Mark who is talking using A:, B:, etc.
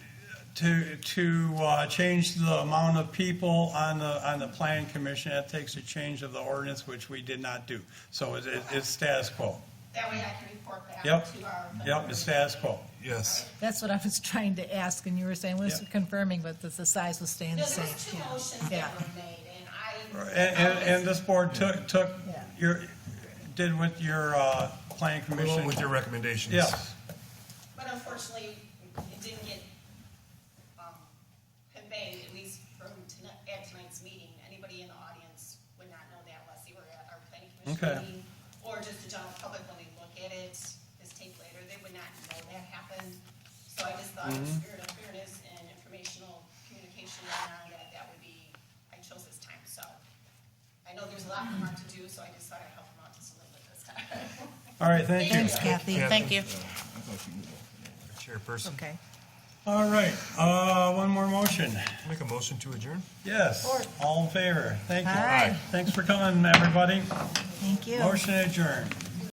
A: to, to uh, change the amount of people on the, on the planning commission, that takes a change of the ordinance, which we did not do. So it's, it's status quo.
B: That way I can report back to
A: Yep,
B: our.
A: yep, it's status quo.
C: Yes.
D: That's what I was trying to ask, and you were saying, was
A: Yeah.
D: confirming, but that the size was staying
B: No,
D: the
B: there
D: same.
B: was two motions that
D: Yeah.
B: were made, and I.
A: And, and, and this board took, took
D: Yeah.
A: your, did with your, uh, planning
C: Along
A: commission.
C: with your recommendations.
A: Yes,
B: But unfortunately, it didn't get um, conveyed, at least from tonight, at tonight's meeting. Anybody in the audience would not know that unless they were at our planning
A: Okay.
B: commission meeting. Or just the general public when they look at it, this tape later, they would not know that happened. So I just thought in spirit of fairness and informational communication and on that, that would be, I chose this time, so. I know there's a lot more to do, so I just thought I'd help them out just a little bit this time.
A: all right, thank you.
D: Thanks, Kathy.
E: Thank you.
C: Chairperson,
D: Okay.
A: All right, uh, one more motion.
C: make a motion to adjourn?
A: Yes, all in favor, thank you.
D: Aye.
A: Thanks for coming, everybody.
D: Thank you.
A: Motion adjourned.